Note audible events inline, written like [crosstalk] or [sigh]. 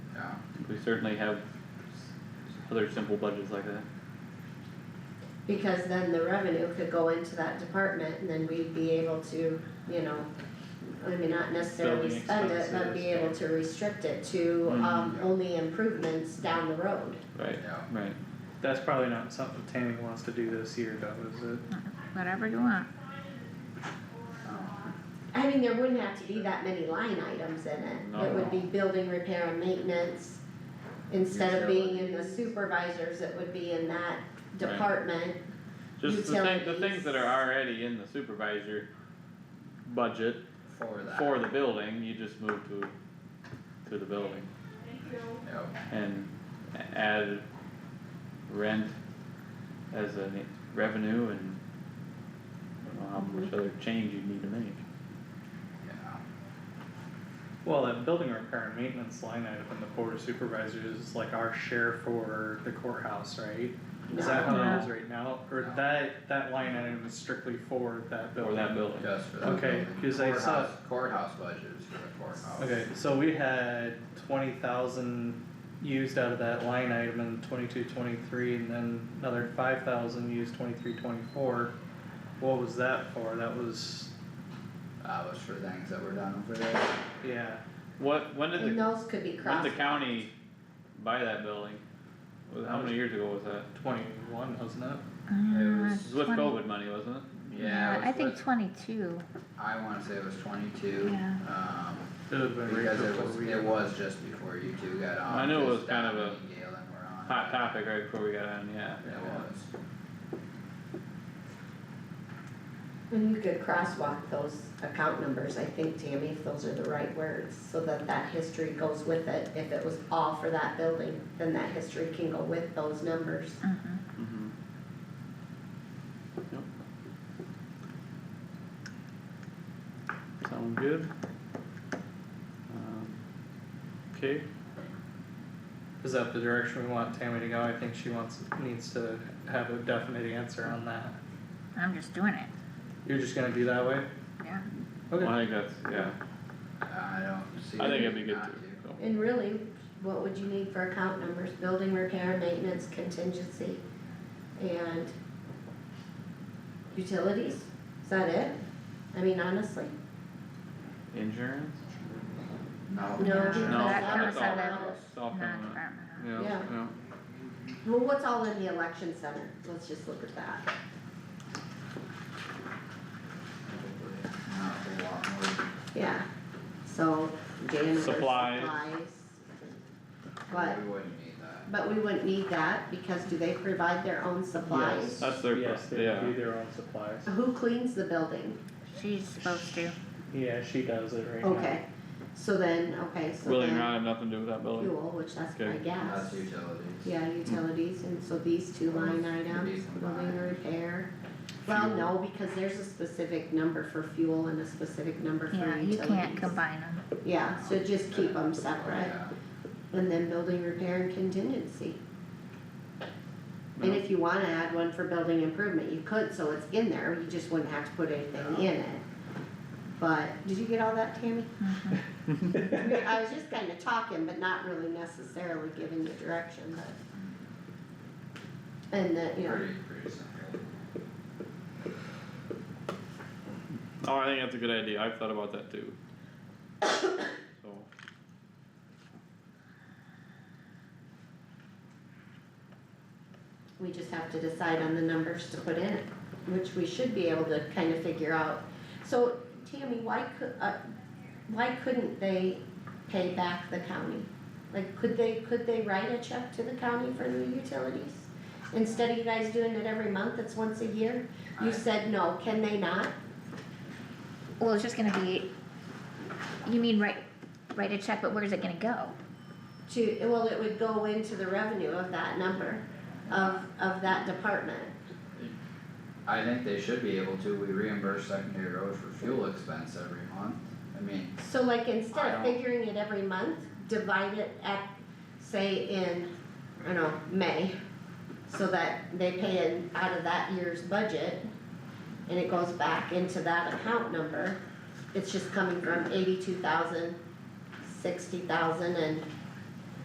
certainly have s- other simple budgets like that. Because then the revenue could go into that department and then we'd be able to, you know, I mean, not necessarily Building spend it, but be able expenses. to restrict it to, Mhm. um, only improvements down the road. Right, Yeah. right. That's probably not something Tammy wants to do this year though, is it? whatever you want. I mean, there wouldn't have to be that many line items in it, No. it would be building, repair and maintenance. Instead of being in the supervisors, it would be in that department, Just the thing, the things Utilities. that are already in the supervisor budget for that. for the building, you just move to, to the building Yep. and a- add rent as a revenue and I don't know how much other change you'd need to make. Yeah. Well, that building repair and maintenance line item in the board of supervisors is like our share for the courthouse, right? Is that how No. it is right now, or that, that line item is strictly for that Or building? that building. Just for that. Okay, building. 'cause I saw- Courthouse- Courthouse budget is for the courthouse. Okay, so we had twenty thousand used out of that line item in twenty-two, twenty-three, and then another five thousand used twenty-three, twenty-four. What was that for? That was, That was for things that were done over there. yeah, What, when did and the, those could be when crossed. did the county buy that building? Was- How many years ago was that? twenty-one, wasn't it? Uh, was It was with 20 COVID money, wasn't it? Yeah, it was I think with- twenty-two, I wanna say it was twenty-two. Yeah. Um, It would've been right because it before was, we- it was just before you two got on. I knew it because was kind of Donnie a and Galen were on. Hot topic right before we got on, yeah. It was. And you could crosswalk those account numbers, I think, Tammy, if those are the right words, so that that history goes with it. If it was all for that building, then that history can go with those numbers. mhm, Mm-hmm. Yep. Sound good? Um, Okay, Is that the direction we want Tammy to go? I think she wants, needs to have a definite answer on that. I'm just doing it, You're just gonna be that way? yeah. well, Okay, I think that's, yeah, I don't see. I think it it'd be good not too, to. so. And really, what would you need for account numbers? Building repair, maintenance, contingency, and utilities? Is that it? I mean, honestly, Insurance? No. No. Yeah, No, No, That that's comes that's all, out that of was- that's all permanent. non-departmental. Yeah, Yeah. yeah, well, what's all in the election center? Let's just look at that. Probably Not a lot more. Yeah, so janitor Supplies. supplies. What? We wouldn't need that. But we wouldn't need that, because do they provide their own supplies? that's their, yes, pro- they do yeah, their own supplies. Who cleans the building? She's supposed to, Yeah, she does it right now. Okay, so then, okay, so building then not have nothing to do with that building. fuel, which that's Okay. my That's guess. utilities. Yeah, utilities, and so these two line Those items, these building combined. and repair. Well, no, because there's a specific number for fuel and a specific number for yeah, utilities. you can't combine them, Yeah, so just keep them Oh, separate, yeah. and then building repair and contingency. And if you wanna add one for building improvement, you could, so it's in there, you just wouldn't have to put anything in it. But, did you get all that, Tammy? mhm, I mean, I was just kinda talking, but not really necessarily giving you direction, but. And that, you know, Pretty, pretty simple. Oh, I think that's a good idea, I've thought about that too. [coughs] So, we just have to decide on the numbers to put in it, which we should be able to kinda figure out. So, Tammy, why could, uh, why couldn't they pay back the county? Like, could they, could they write a check to the county for the utilities? Instead of you guys doing it every month, it's once a year? You I- said no, can they not? well, it's just gonna be, you mean write, write a check, but where's it gonna go? To, well, it would go into the revenue of that number, of, of that department. I think they should be able to, we reimburse secondary roads for fuel expense every month, I mean, So like instead I of don't- figuring it every month, divide it at, say in, I don't know, May. So that they pay it out of that year's budget and it goes back into that account number. It's just coming from eighty-two thousand, sixty thousand and